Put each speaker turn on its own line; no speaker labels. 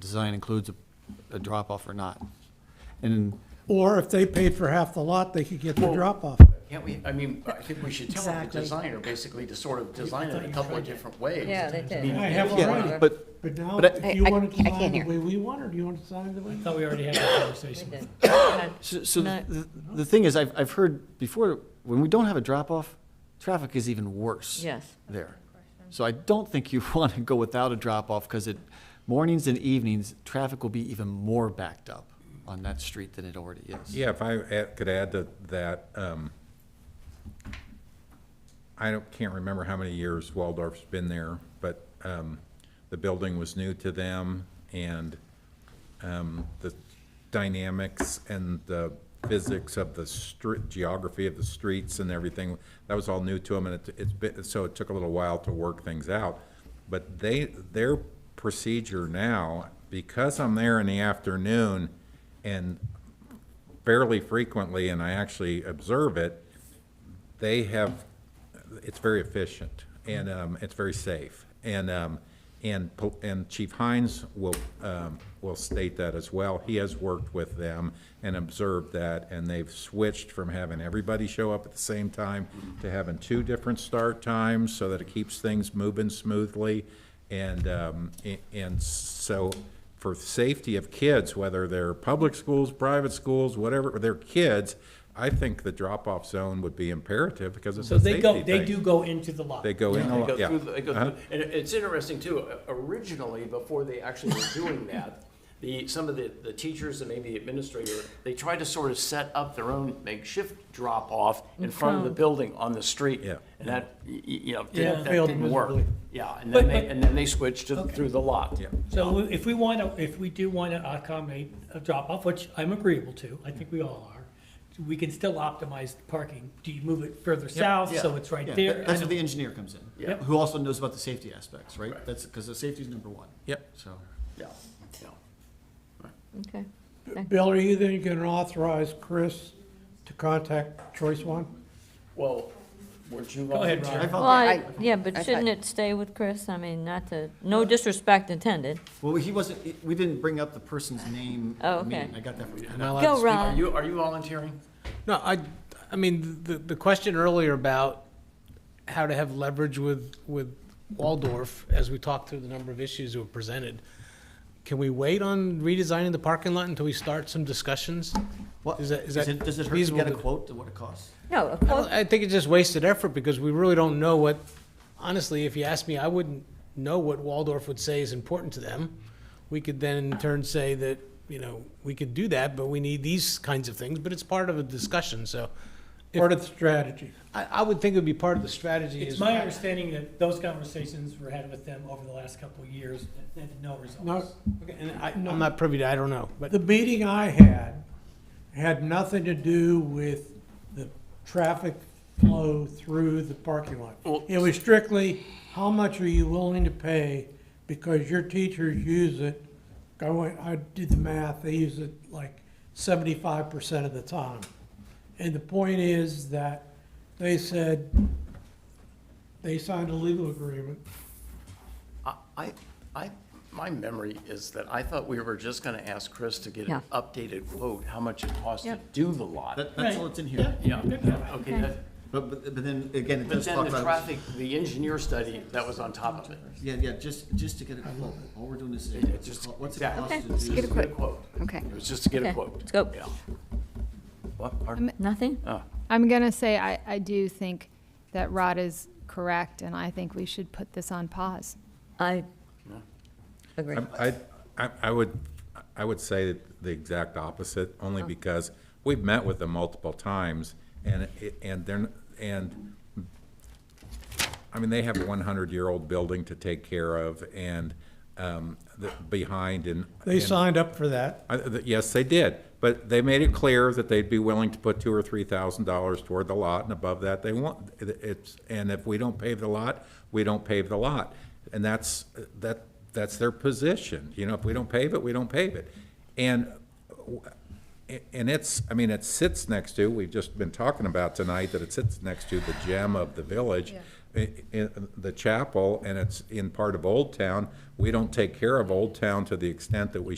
design includes a, a drop-off or not. And
Or if they paid for half the lot, they could get the
Well-
drop-off.
Yeah, we, I mean, I think we should tell the
Exactly.
designer basically to sort of design it a couple of different ways.
Yeah, they did.
mean,
I have
Yeah.
already.
yeah, but,
But now,
But I-
if you
I- I-
want
I
to design
can't
the
hear.
way we want, or do you want to design the way?
Thought we already had that
We
conversation.
did.
so, so
No.
the, the thing is, I've, I've heard before, when we don't have a drop-off, traffic is even worse.
Yes.
There. So I don't think you want to go without a drop-off, because it, mornings and evenings, traffic will be even more backed up on that street than it already is.
Yeah, if I add- could add to that, um, I don't, can't remember how many years Waldorf's been there, but um, the building was new to them, and um, the dynamics and the physics of the street, geography of the streets and everything, that was all new to them, and it- it's, been- so it took a little while to work things out. But they, their procedure now, because I'm there in the afternoon, and fairly frequently, and I actually observe it, they have, it's very efficient, and um, it's very safe. And, um, and, po- and Chief Hines will, um, will state that as well. He has worked with them and observed that, and they've switched from having everybody show up at the same time to having two different start times, so that it keeps things moving smoothly. And, um, a- and so for safety of kids, whether they're public schools, private schools, whatever, they're kids, I think the drop-off zone would be imperative because it's
So
a
they
safety
go,
thing.
they do go into the lot.
They go in,
They
the-
go
yeah.
through, the- they go
Uh-huh.
through, and it's interesting too, uh, originally, before they actually were doing that, the, some of the, the teachers and maybe the administrator, they tried to sort of set up their own makeshift drop-off in front of the building on the street.
Yeah.
And that, y- y- you know,
Yeah,
didn't- that
failed
didn't work.
miserably.
Yeah, and then
But-
they,
but-
and then they switched to, through the lot.
Yeah.
So if we want to, if we do want to accommodate a drop-off, which I'm agreeable to, I think we all are, we can still optimize the parking. Do you move it further south, so
Yeah.
it's right
Yeah,
there?
that- That's
I
where
know-
the engineer comes in.
Yeah.
Who also knows about the safety aspects, right? That's, because the safety is number one.
Yep.
So,
Yeah, yeah.
Okay.
Bill, are you then going to authorize Chris to contact Choice One?
Well, weren't you?
Go ahead,
volunteer?
Rob.
I
Well,
thought,
I- yeah,
I
but
thought-
shouldn't it stay with Chris? I mean, not to, no disrespect intended.
well, he wasn't, we didn't bring up the person's name.
Oh,
I mean,
okay.
I got that from.
Am I allowed to
Go,
speak?
Are
Ron.
you, are you volunteering?
No, I, I mean, the, the question earlier about how to have leverage with, with Waldorf, as we talked through the number of issues that were presented, can we wait on redesigning the parking lot until we start some discussions?
What,
Is that- is
does
that
it- does it hurt to
feasible
get a
to-
quote to what it costs?
No, of
I
course,
don't- I think it's just wasted effort because we really don't know what, honestly, if you ask me, I wouldn't know what Waldorf would say is important to them. We could then in turn say that, you know, we could do that, but we need these kinds of things, but it's part of a discussion, so. if-
Part of the strategy.
I, I would think it would be part of the strategy.
It's
is-
my understanding that those conversations were had with them over the last couple of years and and no
No,
results.
Okay, and I, I'm not privy to, I don't know, but
the meeting I had had nothing to do with the traffic flow through the parking lot.
Well-
It was strictly, how much are you willing to pay because your teachers use it, I went, I did the math, they use it like seventy-five percent of the time. And the point is that they said, they signed a legal agreement
I- I, I, my memory is that I thought we were just gonna ask Chris to get an updated quote, how much it costs to
Yep.
do the lot.
That, that's all
Right.
that's in here.
Yeah, yeah, okay, that-
But, but, but then again, it
but
does
then
talk
the
about,
traffic, the engineer study, that was on top of it.
yeah, yeah, just, just to get a quote. All we're doing is saying, what's it
Just-
co- what's it
exactly.
cost to
Okay, let's
do
get a
this?
quote. Okay.
It was just to get a
Okay,
quote.
let's go.
Yeah. What, pardon?
nothing?
Oh,
I'm going to say I, I do think that Rod is correct, and I think we should put this on pause.
I agree.
I, I, I would, I would say the exact opposite, only because we've met with them multiple times, and, it- and they're, and, I mean, they have a one hundred year old building to take care of, and, um, the, behind and.
They
and-
signed up for that.
I- th- Yes, they did, but they made it clear that they'd be willing to put two or three thousand dollars toward the lot, and above that, they want, it- it's, and if we don't pave the lot, we don't pave the lot. And that's, that, that's their position, you know, if we don't pave it, we don't pave it. And a- And it's, I mean, it sits next to, we've just been talking about tonight, that it sits next to the gem of the village. i- in the chapel, and it's in part of Old Town. We don't take care of Old Town to the extent that we